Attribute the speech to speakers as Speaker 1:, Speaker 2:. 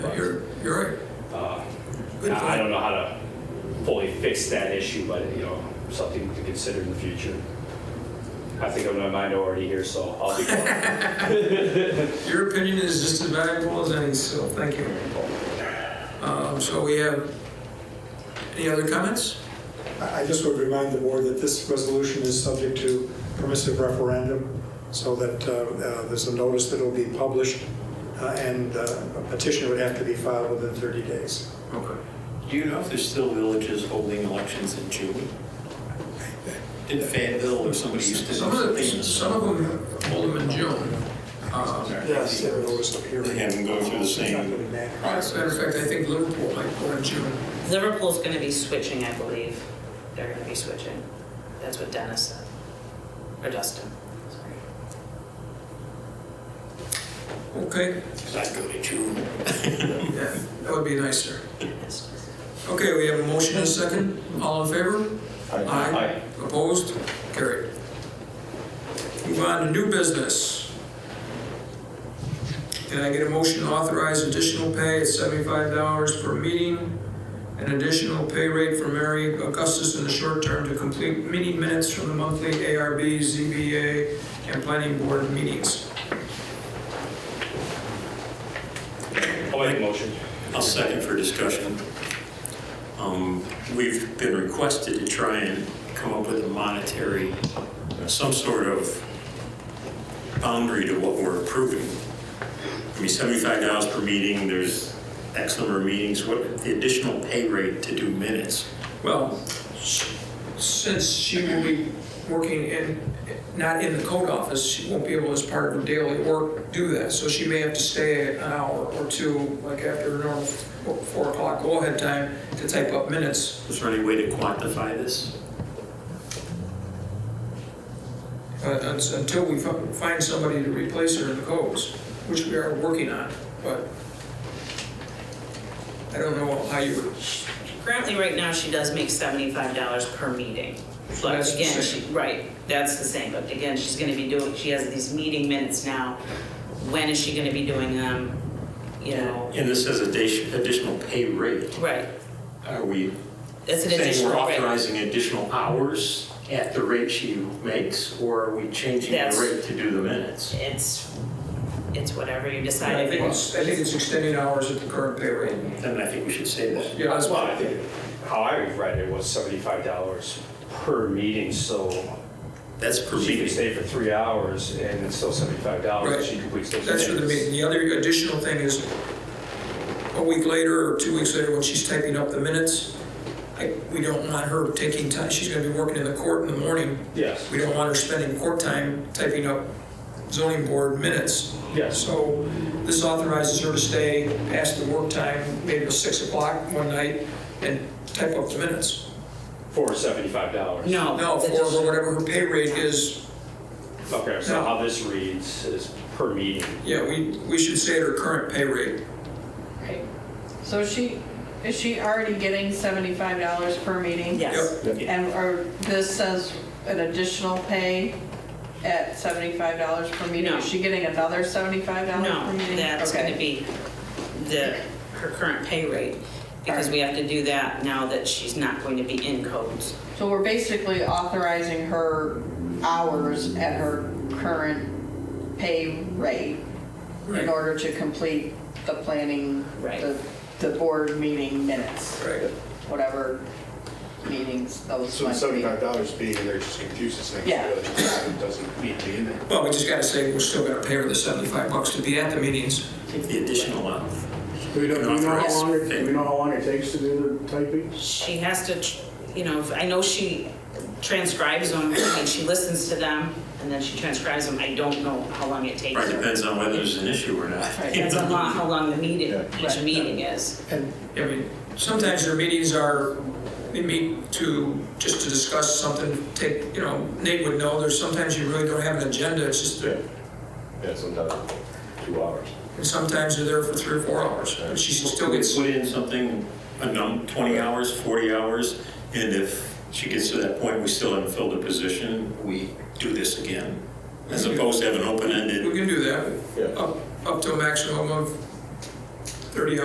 Speaker 1: Uh,
Speaker 2: Now, I
Speaker 1: that.
Speaker 2: don't know how to fully fix that issue, but, you know, something to consider in the future. I think I'm a minority here, so I'll be quiet.
Speaker 1: Your opinion is just as valuable as any, so thank you. Um, So we have, any other comments?
Speaker 3: I I just would remind the board that this resolution is subject to permissive referendum, so that uh, uh, there's a notice that will be published, uh, and uh, a petition would have to be filed within 30 days.
Speaker 1: Okay.
Speaker 4: Do you know if there's still villages holding elections in June? Did Fayetteville or somebody used to do
Speaker 1: Some of
Speaker 4: something?
Speaker 1: the, some of them hold them in June. Um,
Speaker 3: Yes. Their notice of hearing.
Speaker 4: Have them go through the same-
Speaker 3: It's not gonna matter.
Speaker 1: As a matter of fact, I think Liverpool might go in June.
Speaker 5: Liverpool's going to be switching, I believe. They're going to be switching. That's what Dennis said, or Dustin, sorry.
Speaker 1: Okay,
Speaker 4: I'd go to June.
Speaker 1: yeah, that would be nicer.
Speaker 5: Yes.
Speaker 1: Okay, we have a motion and a second. All in favor?
Speaker 2: Aye.
Speaker 1: Opposed? Carried. Move on to new business. Can I get a motion to authorize additional pay at seventy-five dollars per meeting? An additional pay rate for Mary Augustus in the short term to complete meeting minutes from the monthly ARB, ZBA, and planning board meetings.
Speaker 2: I'll make a motion.
Speaker 4: I'll second for discussion. Um, We've been requested to try and come up with a monetary, uh, some sort of boundary to what we're approving. I mean, seventy-five dollars per meeting, there's X number of meetings, what, the additional pay rate to do minutes?
Speaker 1: Well, s- since she will be working in, not in the code office, she won't be able as part of her daily work do that. So she may have to stay an hour or two, like after her normal four four o'clock go-ahead time to type up minutes.
Speaker 4: Is there any way to quantify this?
Speaker 1: Uh, that's Until we fi- find somebody to replace her in the codes, which we are working on, but I don't know how you would,
Speaker 5: Currently, right now, she does make seventy-five dollars per meeting.
Speaker 1: So
Speaker 5: But
Speaker 1: that's the
Speaker 5: again, she,
Speaker 1: same.
Speaker 5: right, that's the same, but again, she's gonna be doing, she has these meeting minutes now. When is she gonna be doing them, you know?
Speaker 4: And this says addi- additional pay rate.
Speaker 5: Right,
Speaker 4: Are we
Speaker 5: it's an
Speaker 4: saying
Speaker 5: additional
Speaker 4: we're
Speaker 5: rate.
Speaker 4: authorizing additional hours at the rate she makes, or are we changing
Speaker 5: That's-
Speaker 4: the rate to do the minutes?
Speaker 5: It's, it's whatever you decide.
Speaker 1: I
Speaker 5: if
Speaker 1: think
Speaker 5: you-
Speaker 1: it's, I think it's extending hours at the current pay rate.
Speaker 4: Then I think we should say that.
Speaker 1: Yeah, that's
Speaker 2: Well, I
Speaker 1: why.
Speaker 2: think, how I read it was seventy-five dollars per meeting, so
Speaker 4: That's per
Speaker 2: she could
Speaker 4: meeting.
Speaker 2: stay for three hours and it's still seventy-five dollars
Speaker 1: Right.
Speaker 2: if she completes those
Speaker 1: That's for the
Speaker 2: minutes.
Speaker 1: meeting. The other additional thing is, a week later or two weeks later, when she's typing up the minutes, I- we don't want her taking time, she's gonna be working in the court in the morning.
Speaker 2: Yes,
Speaker 1: We don't want her spending court time typing up zoning board minutes.
Speaker 2: yes.
Speaker 1: So this authorizes her to stay past the work time, maybe till 6 o'clock one night, and type up the minutes.
Speaker 2: For seventy-five dollars.
Speaker 5: No.
Speaker 1: No,
Speaker 5: it's
Speaker 1: for
Speaker 5: additional-
Speaker 1: whatever her pay rate is,
Speaker 2: Okay, so
Speaker 1: No.
Speaker 2: how this reads is per meeting.
Speaker 1: yeah, we, we should say her current pay rate.
Speaker 6: Right. So is she, is she already getting seventy-five dollars per meeting?
Speaker 5: Yes.
Speaker 1: Yep.
Speaker 6: And, or this says an additional pay at seventy-five dollars per meeting?
Speaker 5: No.
Speaker 6: Is she getting another seventy-five dollars per
Speaker 5: No,
Speaker 6: meeting?
Speaker 5: that's
Speaker 6: Okay.
Speaker 5: gonna be the, her current pay rate, because we have to do that now that she's not going to be in codes.
Speaker 6: So we're basically authorizing her hours at her current pay rate
Speaker 1: Right.
Speaker 6: in order to complete the planning,
Speaker 5: Right.
Speaker 6: the, the board meeting minutes,
Speaker 1: Right.
Speaker 6: whatever meetings those
Speaker 7: So the
Speaker 6: might be.
Speaker 7: seventy-five dollars being in there just confuses things,
Speaker 6: Yeah.
Speaker 7: really, it doesn't need to be in there.
Speaker 1: Well, we just gotta say, we're still gonna pay her the 75 bucks to be at the meetings.
Speaker 4: The additional hour.
Speaker 8: Do we know, do we know how long, it- do we know how long it takes to do the typing?
Speaker 5: She has to, tr- you know, I know she transcribes them, and she listens to them, and then she transcribes them, I don't know how long it takes
Speaker 4: Right,
Speaker 5: her.
Speaker 4: depends on whether there's an issue or not.
Speaker 6: Right.
Speaker 5: Depends on lo- how long the meeting, each
Speaker 6: Right.
Speaker 5: meeting is.
Speaker 3: And
Speaker 1: I mean, sometimes their meetings are, they meet to, just to discuss something, take, you know, Nate would know, there's sometimes you really don't have an agenda, it's just, and
Speaker 9: Yeah, sometimes two hours.
Speaker 1: sometimes they're there for three or four hours, but she still
Speaker 4: We
Speaker 1: gets,
Speaker 4: Put in something, a num, twenty hours, forty hours, and if she gets to that point, we still haven't filled a position, we do this again. As opposed to have an
Speaker 1: we
Speaker 4: open-ended.
Speaker 1: can do
Speaker 9: Yeah.
Speaker 1: that, up, up to a maximum of 30